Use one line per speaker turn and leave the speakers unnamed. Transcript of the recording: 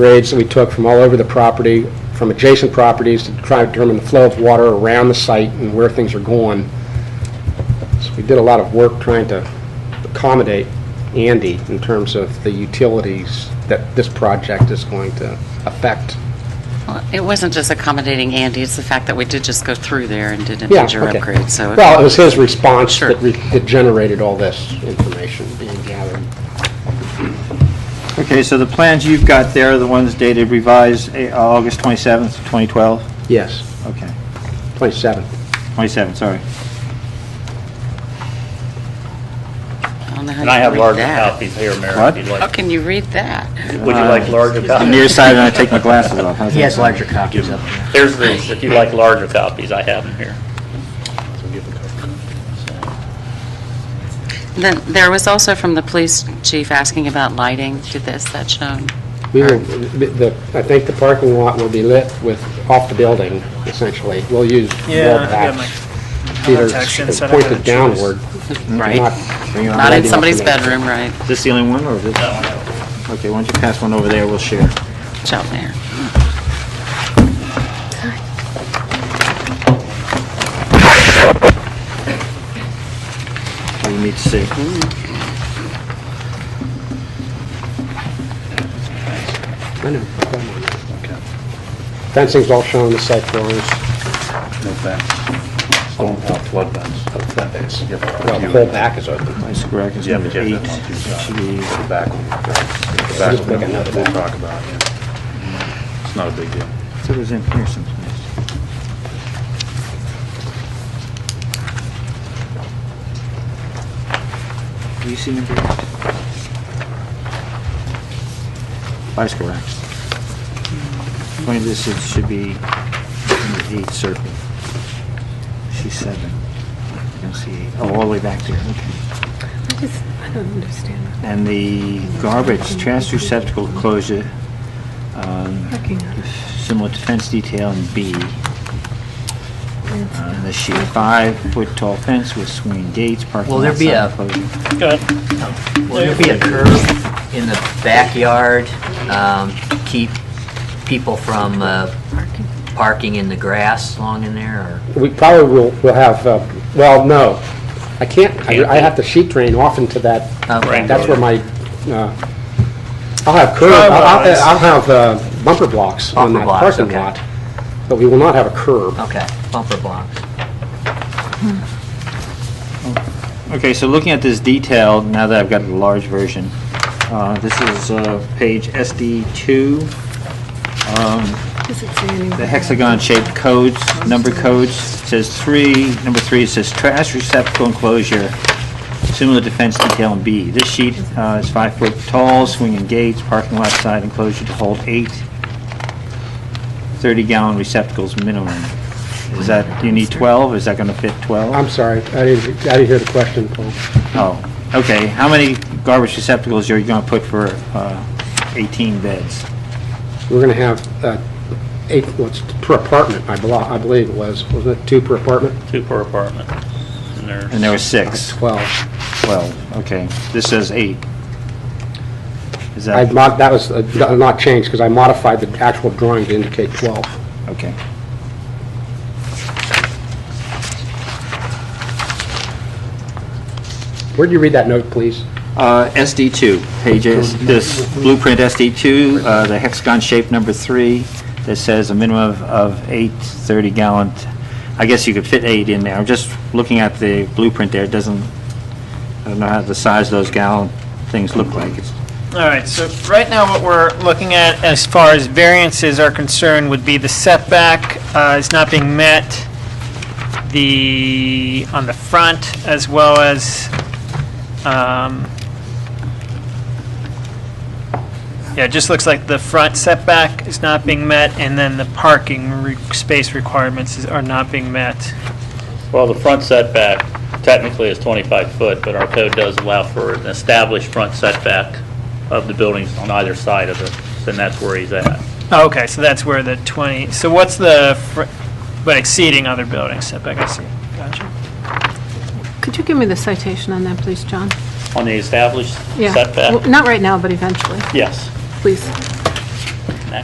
grades that we took from all over the property, from adjacent properties, to try to determine the flow of water around the site and where things are going. So we did a lot of work trying to accommodate Andy in terms of the utilities that this project is going to affect.
Well, It wasn't just accommodating Andy, it's the fact that we did just go through there and did a
Yeah,
major
okay.
upgrade, so.
Well, it was his response
Sure.
that re- that generated all this information being gathered.
Okay, so the plans you've got there are the ones dated revised eh, August 27th, 2012?
Yes,
Okay,
27.
27, sorry.
I don't know how
And I
you
have
read
larger
that.
copies here, Mayor,
What?
if you'd
How
like.
can you read that?
Would you like larger
I'm
copies?
nearsighted and I take my glasses off. How's
He
that
has
sound?
larger copies up there.
There's these, if you like larger copies, I have them here.
Then, there was also from the police chief asking about lighting, did this, that shown?
We will, the, I think the parking lot will be lit with, off the building, essentially. We'll use
Yeah,
wall
I got my
packs. Either
contacts in, so I don't have
pointed
a choice.
downward.
Right.
Mm-hmm. not-
Bring it on.
Not in
Lighting up
somebody's
in there.
bedroom, right,
Is this the only one, or is it? Okay, why don't you pass one over there, we'll share.
it's out there.
We need to see.
Mm-hmm.
I know. Fencing's all shown on the site drawings,
No fence. Stone wall flood fence. Fence.
well, the whole back is open.
My square is
Yeah,
number
but you
eight.
have that on two sides. The back one.
That should be-
The
Just
back one,
make another
we'll
one.
talk about, yeah. It's not a big deal.
So it was in here someplace. Do you see number eight? Vice correct. Point of this, it should be number eight circle. She's seven. I don't see eight. Oh, all the way back there, okay.
I just, I don't understand what
And the garbage trash receptacle closure, um,
parking on it.
similar to fence detail in B. On the sheet, five-foot tall fence with swing gates, parking
Will there
lot
be
side
a-
enclosure.
Go ahead.
Will there be a curb in the backyard, um, to keep people from, uh,
Parking.
parking in the grass long in there, or?
We probably will, will have, uh, well, no, I can't, I I have to sheet drain off into that,
Okay.
that's where my, uh, I'll have curb, I'll- I'll I'll have uh, bumper blocks on
Bumper
that
blocks,
parking
okay. Oh,
lot, but we will not have a curb.
Okay, bumper blocks.
Okay, so looking at this detail, now that I've got the large version, uh, this is uh, page SD2,
Does it say anywhere?
the hexagon-shaped codes, number codes, It says three, number three, it says trash receptacle enclosure, similar to fence detail in B. This sheet uh, is five foot tall, swinging gates, parking lot side enclosure to hold eight 30-gallon receptacles minimum. Is that, you need 12, is that going to fit 12?
I'm sorry, I didn't, I didn't hear the question, Paul.
Oh, okay, how many garbage receptacles are you going to put for uh, 18 beds?
We're going to have uh, eight, what's per apartment, I believe, I believe it was, was it two per apartment?
Two per apartment. And
And
there's,
there were six,
Twelve.
12, okay. This says eight. Is
I,
that?
mod- that was uh, not changed, because I modified the actual drawing to indicate twelve.
Okay.
Where'd you read that note, please?
Uh, SD2, pages, this blueprint SD2, uh, the hexagon shape number three, that says a minimum of- of eight 30-gallon, I guess you could fit eight in there. I'm just looking at the blueprint there, it doesn't, I don't know how the size of those gallon things look like. It's-
All right, so right now what we're looking at as far as variances are concerned would be the setback uh, is not being met, the, on the front, as well as, um, yeah, it just looks like the front setback is not being met, and then the parking re- space requirements is- are not being met.
well, the front setback technically is 25 foot, but our code does allow for an established front setback of the buildings on either side of it, and that's where he's at.
Oh, Okay, so that's where the 20, so what's the, fr- but exceeding other buildings setback, I see. Gotcha.
Could you give me the citation on that, please, John?
On the established
Yeah. Well,
setback?
Not right now, but eventually,
Yes.
please.